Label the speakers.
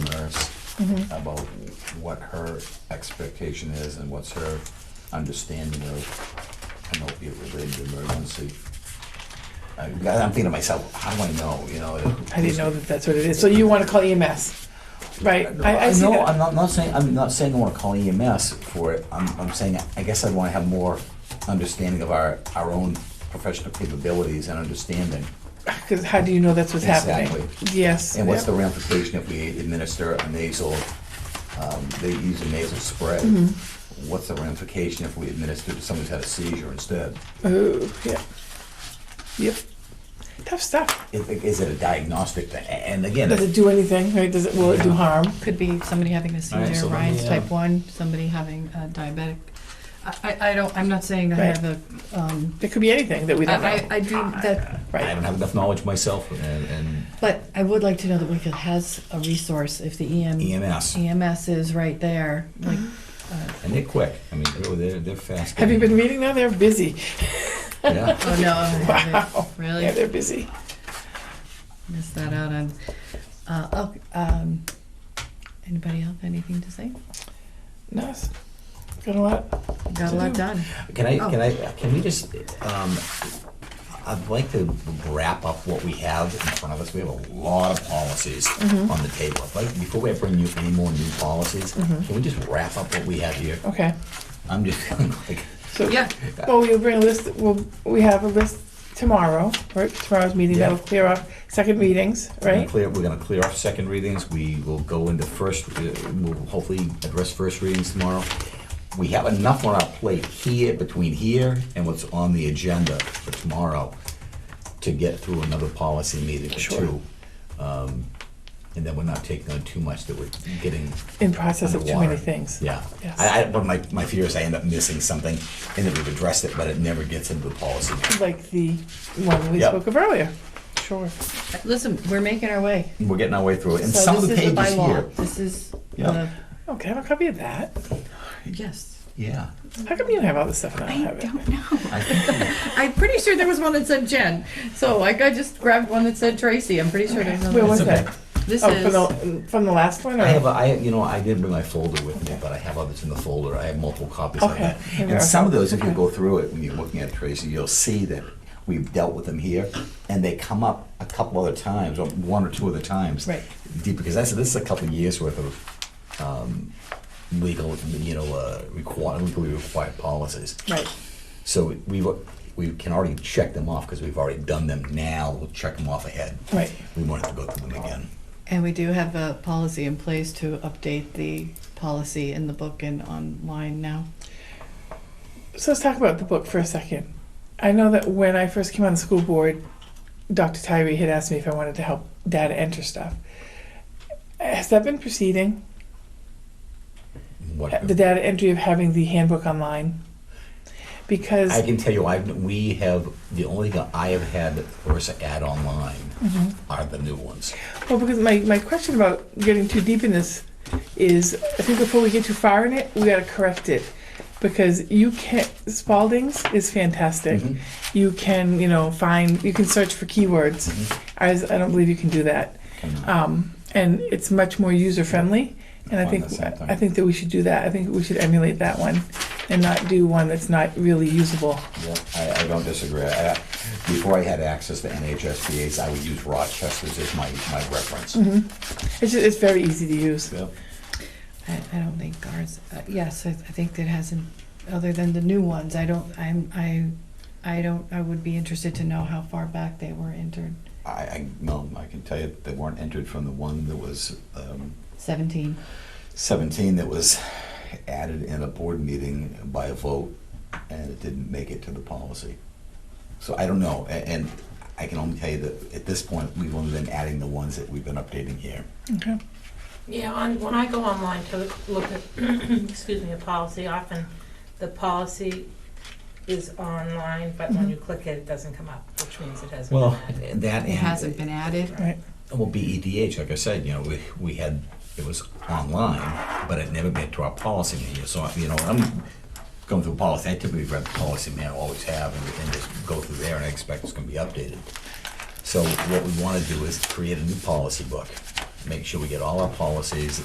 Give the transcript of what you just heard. Speaker 1: Mm-hmm.
Speaker 2: about what her expectation is and what's her understanding of an opiate-related emergency. I- I'm thinking to myself, how do I know, you know?
Speaker 1: I didn't know that that's what it is. So you want to call EMS, right? I, I see
Speaker 2: No,
Speaker 1: that.
Speaker 2: I'm not, not saying, I'm not saying I wanna call EMS for it, I'm, I'm saying, I guess I'd wanna have more understanding of our, our own professional capabilities and understanding.
Speaker 1: Because how do you know that's what's happening?
Speaker 2: Exactly.
Speaker 1: Yes.
Speaker 2: And what's
Speaker 1: yep.
Speaker 2: the ramification if we administer a nasal, um, they use a nasal spray?
Speaker 1: Mm-hmm.
Speaker 2: What's the ramification if we administer to somebody who's had a seizure instead?
Speaker 1: Ooh, yeah. Yep. Tough stuff.
Speaker 2: Is, is it a diagnostic thing? A- And again,
Speaker 1: Does it do anything? Right? Does it? Will it do harm?
Speaker 3: Could be somebody having a
Speaker 4: All right,
Speaker 3: seizure,
Speaker 4: so let
Speaker 3: Ryan's
Speaker 4: me, uh,
Speaker 3: type one, somebody having a diabetic. I, I I don't, I'm not saying I
Speaker 1: Right.
Speaker 3: have a, um,
Speaker 1: It could be anything that we
Speaker 3: I,
Speaker 1: don't
Speaker 3: I-
Speaker 1: know.
Speaker 3: I do that,
Speaker 4: I
Speaker 1: Right.
Speaker 4: don't have enough knowledge myself, and, and
Speaker 3: but I would like to know that Wakefield has a resource if the E
Speaker 4: E
Speaker 3: EM,
Speaker 2: EMS,
Speaker 3: EMS is right there,
Speaker 1: Mm-hmm.
Speaker 3: like, uh,
Speaker 4: and they're quick. I mean, really, they're they're fast.
Speaker 1: Have you been reading now? They're busy.
Speaker 4: Yeah.
Speaker 3: oh no, I haven't.
Speaker 1: Wow.
Speaker 3: really?
Speaker 1: Yeah, they're busy.
Speaker 3: Missed that out on, uh, oh, um, anybody have anything to say?
Speaker 1: Nice. Got a lot.
Speaker 3: Got a lot done.
Speaker 4: Can I,
Speaker 3: Oh.
Speaker 4: can I, can we just, um, I'd like to wrap up what we have in front of us. We have a lot of policies on the table. I'd Like, before we bring you any more new policies, can we just wrap up what we have here?
Speaker 1: Okay.
Speaker 4: I'm just feeling like,
Speaker 1: So
Speaker 3: Yeah,
Speaker 1: Well, we'll bring a list, we'll, we have a list tomorrow, right, tomorrow's meeting,
Speaker 4: Yeah.
Speaker 1: that'll clear up second readings,
Speaker 4: we're gonna
Speaker 1: right?
Speaker 4: clear, we're gonna clear off second readings. We will go into first, uh, we'll hopefully address first readings tomorrow. We have enough on our plate here, between here and what's on the agenda for tomorrow to get through another policy meeting or
Speaker 1: Sure.
Speaker 4: two. Um, And then we're not taking on too much that we're getting,
Speaker 1: In process of too many
Speaker 4: Underwater.
Speaker 1: things.
Speaker 4: yeah.
Speaker 1: Yes.
Speaker 4: I, I, but my, my fear is I end up missing something and that we've addressed it, but it never gets into the policy.
Speaker 1: Like the one we
Speaker 4: Yep.
Speaker 1: spoke of earlier. Sure.
Speaker 3: listen, we're making our way.
Speaker 4: We're getting our way through it. And
Speaker 3: So
Speaker 4: some of the
Speaker 3: this is
Speaker 4: pages
Speaker 3: bylaw.
Speaker 4: here.
Speaker 3: This is the,
Speaker 4: Yeah.
Speaker 1: Oh, can I have a copy of that?
Speaker 3: yes.
Speaker 4: Yeah.
Speaker 1: How come you have all this stuff and I don't
Speaker 3: I
Speaker 1: have it?
Speaker 3: don't know.
Speaker 4: I think
Speaker 3: I'm pretty sure there was one that said Jen. So like I just grabbed one that said Tracy. I'm pretty sure there's
Speaker 1: Where
Speaker 3: another.
Speaker 1: was
Speaker 4: It's okay.
Speaker 1: that?
Speaker 3: This
Speaker 1: Oh, from
Speaker 3: is,
Speaker 1: the, from the last one,
Speaker 4: I have a,
Speaker 1: or?
Speaker 4: I, you know, I did bring my folder with me, but I have others in the folder. I have multiple copies of
Speaker 1: Okay.
Speaker 4: that.
Speaker 1: Here we are.
Speaker 4: And some of those, if you go through it, when you're looking at Tracy, you'll see that we've dealt with them here, and they come up a couple other times, or one or two other times.
Speaker 3: Right.
Speaker 4: Deep, because that's, this is a couple of years worth of, um, legal, you know, uh, required, legally required policies.
Speaker 1: Right,
Speaker 4: So we, we can already check them off, because we've already done them now, we'll check them off ahead.
Speaker 1: right,
Speaker 4: We won't have to go through them again.
Speaker 3: and we do have a policy in place to update the policy in the book and online now.
Speaker 1: so let's talk about the book for a second. I know that when I first came on the school board, Dr. Tyree had asked me if I wanted to help data enter stuff. Has that been proceeding?
Speaker 4: What-
Speaker 1: Uh, the data entry of having the handbook online because
Speaker 4: I can tell you, I, we have, the only thing I have had for us to add online are the new ones.
Speaker 1: well because my, my question about getting too deep in this is I think before we get too far in it we got to correct it because you can Spalding's is fantastic
Speaker 4: Mhm.
Speaker 2: Mm-hmm.
Speaker 1: you can you know find you can search for keywords
Speaker 4: Mhm.
Speaker 2: Mm-hmm.
Speaker 1: I, I don't believe you can do that um, and it's much more user friendly and I
Speaker 2: Find
Speaker 1: think
Speaker 2: the same thing.
Speaker 1: I think that we should do that I think we should emulate that one and not do one that's not really usable
Speaker 2: Yeah, I, I don't disagree. I, I- before I had access to NHSBA's, I would use Rochester's as my, my reference.
Speaker 1: it's just, it's very easy to use
Speaker 2: Yep.
Speaker 3: I, I don't think ours, uh, yes, I, I think that hasn't, other than the new ones, I don't, I'm, I, I don't, I would be interested to know how far back they were entered.
Speaker 2: I, I, no, I can tell you they weren't entered from the one that was, um,
Speaker 3: Seventeen.
Speaker 2: 17 that was added in a board meeting by a vote, and it didn't make it to the policy. So I don't know, a- and I can only tell you that at this point, we've only been adding the ones that we've been updating here.
Speaker 1: okay
Speaker 5: Yeah, on, when I go online to look at, excuse me, a policy, often the policy is online, but when you click it, it doesn't come up, which means it hasn't been
Speaker 4: Well,
Speaker 5: added.
Speaker 4: that.
Speaker 3: It hasn't been added.
Speaker 1: right
Speaker 4: Oh, Well, BEDH, like I said, you know, we, we had, it was online, but it never made to our policy manual. So, you know, I'm going through policy, I typically read the policy manual, always have, and- and just go through there, and I expect it's gonna be updated. So what we wanna do is create a new policy book, make sure we get all our policies